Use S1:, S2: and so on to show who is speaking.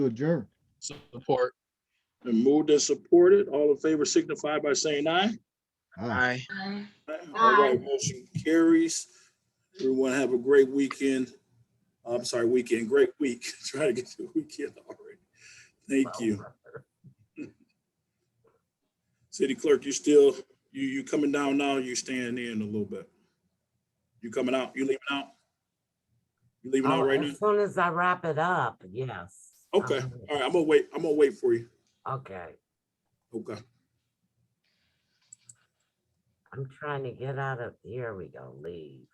S1: to adjourn.
S2: Support.
S3: And moved and supported. All in favor signify by saying aye.
S1: Aye.
S2: Aye.
S4: Aye.
S3: All right, motion carries. Everyone have a great weekend. I'm sorry, weekend, great week. Trying to get to the weekend already. Thank
S5: Oh,
S3: you. City clerk, you still, you, you coming down now, you staying in a little bit? You coming out, you leaving out? You leaving out
S5: Oh,
S3: right now?
S5: As soon as I wrap it up, yes.
S3: Okay,
S5: Um,
S3: all right, I'm gonna wait, I'm gonna wait for you.
S5: Okay,
S3: Okay.
S5: I'm trying to get out of, here we go, leave.